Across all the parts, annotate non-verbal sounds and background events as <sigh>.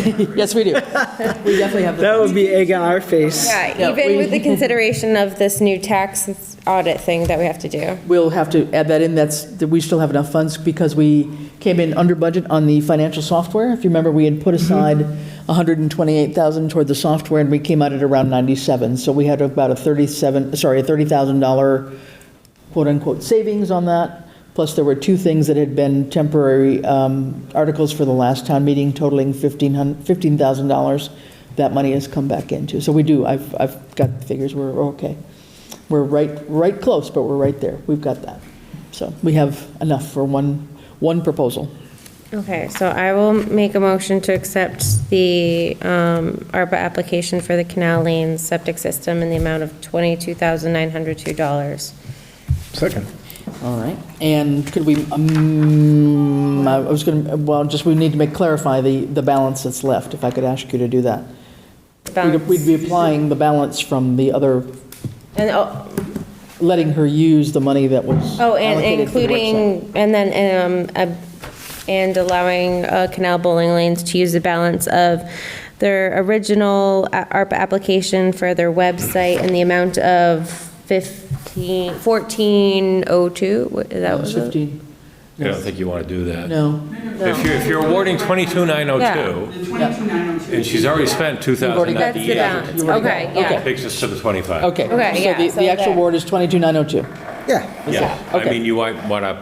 <laughs> Yes, we do. We definitely have That the, would be egg on our face. Yeah, Yeah, even we- with <laughs> the consideration of this new tax audit thing that we have to do. we'll have to add that in, that's, that we still have enough funds because we came in under budget on the financial software. If you remember, we had put aside 128,000 toward the software and we came out at around 97. So we had about a 37, sorry, a $30,000 quote-unquote savings on that. Plus, there were two things that had been temporary um, articles for the last town meeting totaling 1500 $15,000. That money has come back into. So we do, I've, I've got the figures, we're okay. We're right, right close, but we're right there. We've got that. So we have enough for one, one proposal. Okay, so I will make a motion to accept the um, ARPA application for the Canal Lane septic system in the amount of $22,902. Second. All right. And could we, um, I was going to, well, just, we need to make, clarify the, the balance that's left, if I could ask you to do that. We'd- We'd be applying the balance from the other, And, oh, letting her use the money that was oh, and allocated for the website. including, and then, um, uh, and allowing uh, Canal Bowling Lanes to use the balance of their original uh, a- ARPA application for their website in the amount of 15, 1402, What- is that It was was 15, I don't think you want to do that. no. If you're, if you're awarding Yeah. 22,902, The 22,902. and she's already spent already got- That's the 2,098, You balance, already got okay, it. yeah. Okay. takes us to the 25. Okay. Okay, yeah, So the- so the actual there. award is 22902. Yeah. Yeah, I Okay. mean, you might want to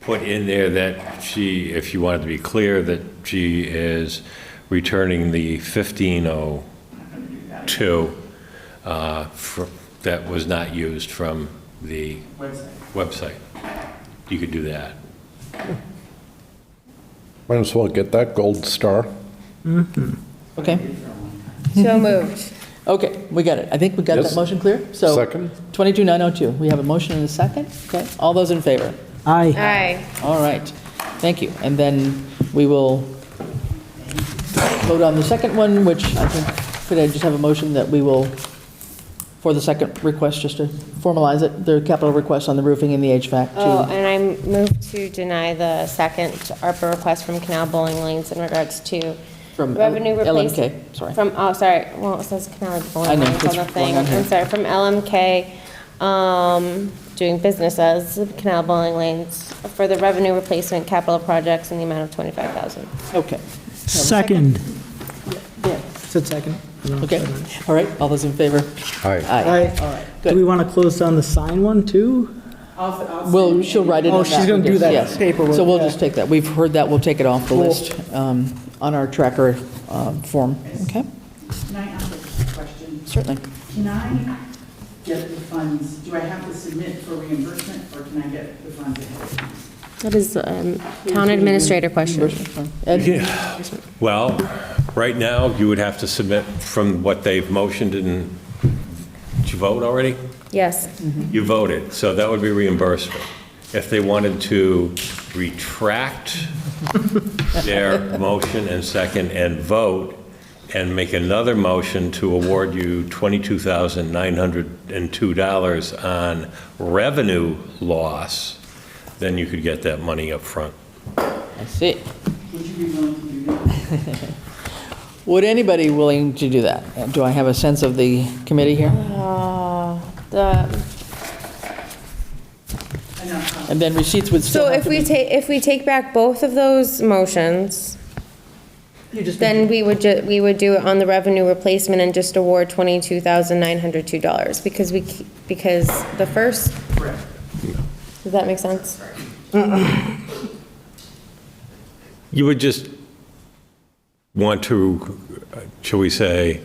put in there that she, if you wanted to be clear, that she is returning the 1502 uh, fr- that was not used from the Website. website. You could do that. Might as well get that gold star. Okay? So moved. Okay, we got it. I think we got that Yes. motion clear? So Second. 22902, we have a motion and a second? Okay, all those in favor? Aye. Aye. All right, thank you. And then we will vote on the second one, which I think, could I just have a motion that we will, for the second request, just to formalize it, the capital request on the roofing and the HVAC Uh, Oh, too? and I move to deny the second ARPA request from Canal Bowling Lanes in regards to From L- revenue LMK, replacement. sorry. From, oh, sorry, well, it says Canal I Bowling know, Lanes on it's the thing. wrong on here. I'm sorry, from LMK, um, doing business as Canal Bowling Lanes for the revenue replacement capital projects in the amount of 25,000. Okay, Second. Yeah. Said second. okay, all right, all those in favor? Aye. Aye, all right, Do we good. want to close down the sign one, too? I'll, I'll. Well, she'll write it in Oh, that. she's gonna do that yes. paperwork, So we'll yeah. just take that, we've heard that, we'll take it off the Cool. list um, on our tracker um, form, okay? Can I ask a question? Certainly. Can I get the funds, do I have to submit for reimbursement, or can I get the funds ahead of time? That is um, town administrator question. Reimbursement form. Ed? Well, right now, you would have to submit from what they've motioned and, did you vote already? Yes. You voted, so that would be reimbursement. If they wanted to retract their motion and second and vote and make another motion to award you $22,902 on revenue loss, then you could get that money up front. I see. Would you be willing to do that? Would anybody willing to do that? Uh, Do I have a sense of the committee here? Uh, The Enough. And then receipts would still So have if to we be. take, if we take back both of those motions, You just- then we would, ju- we would do it on the revenue replacement and just award twenty-two thousand nine hundred two dollars, because we, ke- because the first. Does that make sense? You would just want to, shall we say,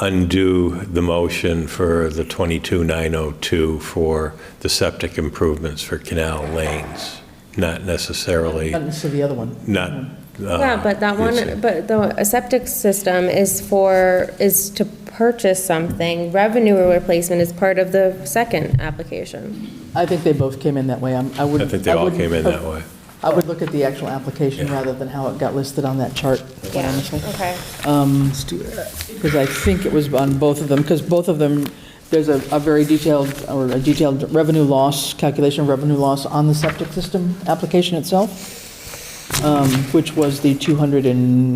undo the motion for the 22902 for the septic improvements for canal lanes, not necessarily, Not necessarily the other one. not. uh, Yeah, but that one, but the a septic system is for, is to purchase something, revenue replacement is part of the second application. I think they both came in that way. I'm- I I wouldn't. think they all wouldn't- came in that way. I would look at the actual application Yeah. rather than how it got listed on that chart, quite Yeah, honestly. okay. Let's do that. Because I think it was on both of them, because both of them, there's a a very detailed, or a detailed revenue loss, calculation of revenue loss on the septic system application itself, um, which was the 200 and